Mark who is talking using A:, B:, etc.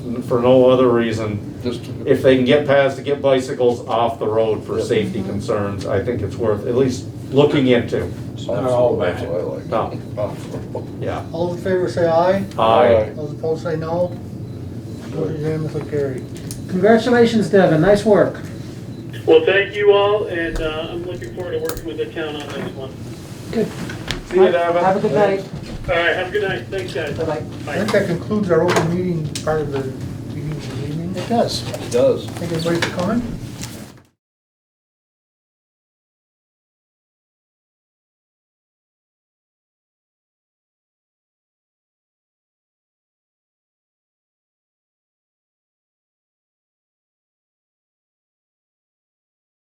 A: for no other reason.
B: Just to-
A: If they can get past to get bicycles off the road for safety concerns, I think it's worth at least looking into.
B: That's
C: not all
B: what I
C: bad.
B: like.
A: No.
B: Oh.
A: Yeah.
D: All those in favor say aye.
A: Aye.
D: Those opposed say no. Motion unanimously carried.
E: Congratulations, Devin, nice work.
F: Well, thank you all, and uh, I'm looking forward to working with the town on this one.
E: Good.
A: See you, Devin.
E: Have a good night.
F: All right, have a good night. Thanks, guys.
E: Bye-bye.
D: I think that concludes our open meeting part of the meeting this evening.
B: It does.
D: Thank everybody for coming.